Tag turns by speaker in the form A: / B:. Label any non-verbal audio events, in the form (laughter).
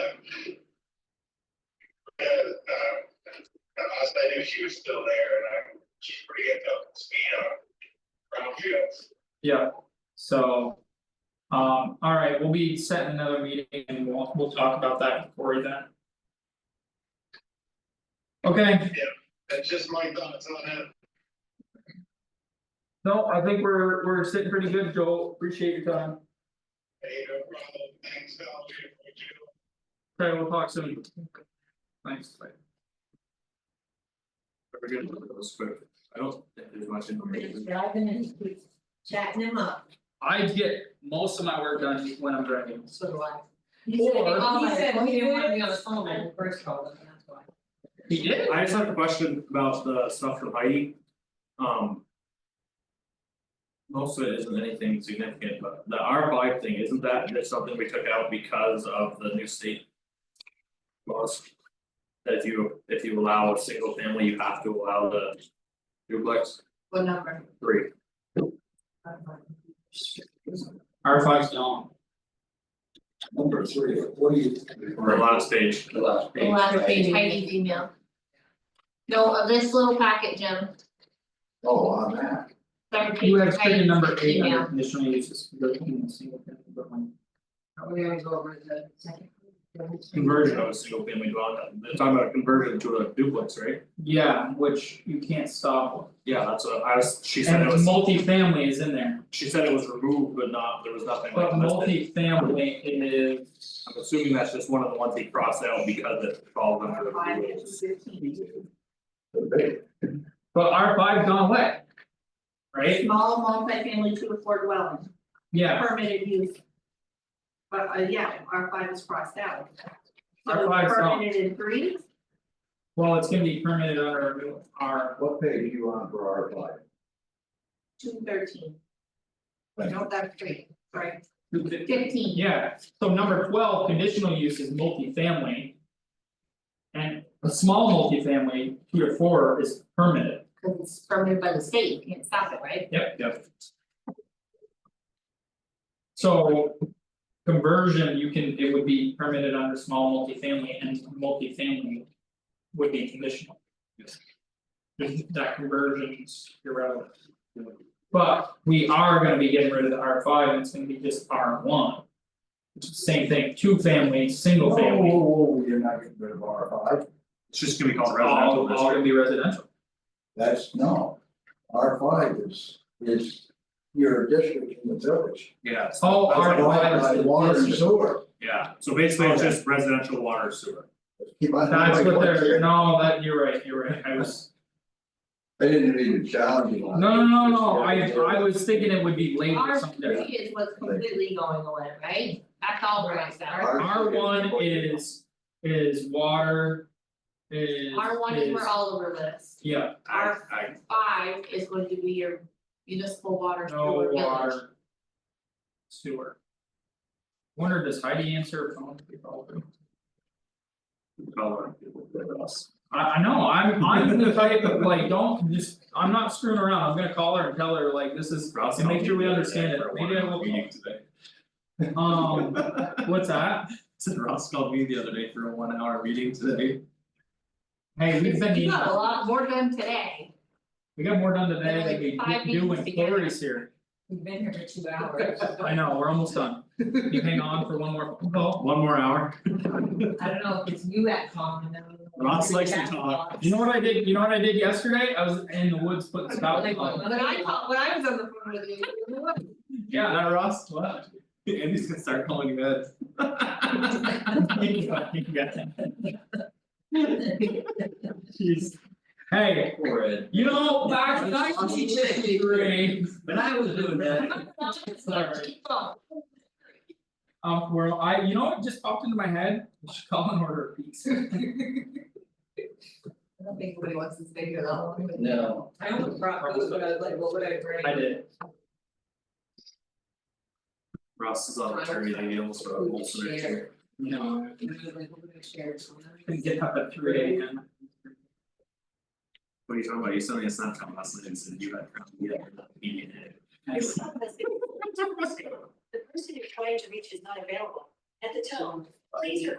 A: um, because she was still there and I'm, she's pretty up to speed on brownfields.
B: Yeah, so. Um, all right, we'll be setting another meeting and we'll, we'll talk about that with Cory then. Okay,
A: That's just my thoughts on it.
B: no, I think we're, we're sitting pretty good, Joel, appreciate your time,
A: Hey, no problem. Thanks, Val, for what you do.
B: okay, we'll talk soon. Thanks. bye.
C: We're gonna look at those quick. I don't think there's much
D: He's
C: information.
D: driving and he keeps chatting him up,
B: I get most of my work done when I'm driving,
D: so do I. He said,
B: Or-
D: he said he didn't wanna be on
E: He
D: the
E: said-
D: phone when we first called him, that's why.
B: he did,
C: I just have a question about the stuff from Heidi. Um. Most of it isn't anything significant, but the R five thing, isn't that just something we took out because of the new state? Laws. That if you, if you allow a single family, you have to allow the duplex
D: What number?
C: three.
B: R five's gone.
F: Number three, what do you?
C: Or last page,
F: The last
E: The
F: page.
E: last
F: right?
E: page, Heidi's email. No, of this little packet, Jim,
F: Oh, on that,
E: third page
B: You have
E: of
B: taken number
E: Heidi's
B: eight under
E: email.
B: conditional uses, you're taking a single family dwelling.
D: Are we gonna go over the second?
C: conversion of a single family dwelling, they're talking about conversion to a duplex, right?
B: Yeah, which you can't stop,
C: Yeah, that's what I was, she said it
B: and
C: was.
B: multifamily is in there.
C: She said it was removed, but not, there was nothing like
B: But
C: listed.
B: multifamily is,
C: I'm assuming that's just one of the ones they crossed out because it falls under the rules.
F: the big,
B: but R five gone away. Right?
E: Small multifamily two to four dwelling,
B: Yeah,
E: permitted use. But uh yeah, R five is crossed out. So
B: R5 's not.
E: Permitted in three,
B: well, it's gonna be permitted under our,
F: what page are you on for our flag?
E: two thirteen.
F: Right.
E: No, that's three, sorry,
B: our-
E: fifteen.
B: yeah, so number twelve, conditional use is multifamily. And a small multifamily, two or four is permitted.
E: Cause it's permitted by the state, you can't stop it, right?
B: Yep, yep. So conversion, you can, it would be permitted under small multifamily and multifamily would be conditional.
C: Yes.
B: There's- That conversion's irrelevant. But we are gonna be getting rid of the R five and it's gonna be just R one. Which is the same thing, two family,
C: Oh.
B: single
F: Whoa,
B: family,
F: whoa, whoa, you're not getting rid of R five,
C: It's just gonna be called residential
B: all all
C: district.
B: gonna be residential.
F: that's, no, R five is, is your district in the village.
C: Yeah, so-
B: Oh,
C: I
B: R
C: was like,
B: five
F: Divided
B: is
F: by Water
B: the
F: and
B: district,
F: sewer.
C: yeah, so basically it's
F: Okay.
C: just residential water sewer.
F: Keep on-
B: that's what they're, no, that, you're right, you're right, I was.
F: I didn't mean to challenge you on.
B: No,
F: it.
B: no, no, no, I I was thinking it would be late or
E: R
B: something
E: three
B: different.
E: is what's completely going away, right? That's all crossed out.
B: R one is is water. Is
E: R one is where all over this,
B: Yeah,
C: I
E: R
C: I
E: five is going to be your municipal water
B: no
E: sewer village.
B: water. Sewer. Wonder does Heidi answer a phone? We probably do.
C: call it.
B: I I know, I'm I'm the type of like, don't just, I'm not screwing around, I'm gonna call her and tell her like, this is,
C: Ross,
B: and make sure we
C: I'll be
B: understand it,
C: there for a
B: maybe I will.
C: meeting today. (laughs)
B: Um, what's that?
C: Said Ross called me the other day for a one hour meeting today.
B: Hey, we've been,
E: You got a
B: meeting-
E: lot more done today,
B: we got more done today than
E: Five
B: we do when
E: meetings together.
B: Cory's here,
D: We've been here for two hours,
B: I know, we're almost done, you hang on for one more phone call.
C: One more hour,
D: I don't know if it's you at home and then.
C: Ross likes to talk.
B: You know what I did, you know what I did yesterday? I was in the woods putting stuff on.
E: when I call, when I was on the phone with you, you were like,
B: Yeah, not Ross, what?
C: Andy's gonna start calling you Ed.
B: Jeez. Hey,
F: Poor Ed.
B: you know, back in nineteen sixty-three,
F: When I was doing that.
B: Sorry. um, where I, you know, what just popped into my head, I should call and order a pizza.
D: I don't think anybody wants to stay here that long.
F: No.
D: I almost brought food, but I was like, what would I bring?
B: I did,
C: Ross is on maternity leave, he almost wrote a whole scenario.
B: you know,
D: And I was like, what would I share? So then I-
B: couldn't get up at three AM.
C: What are you talking about? You sent me a Snapchat last night and said you had problems yet with that meeting it.
B: Nice.
G: The person you're trying to reach is not available. At the tone, please record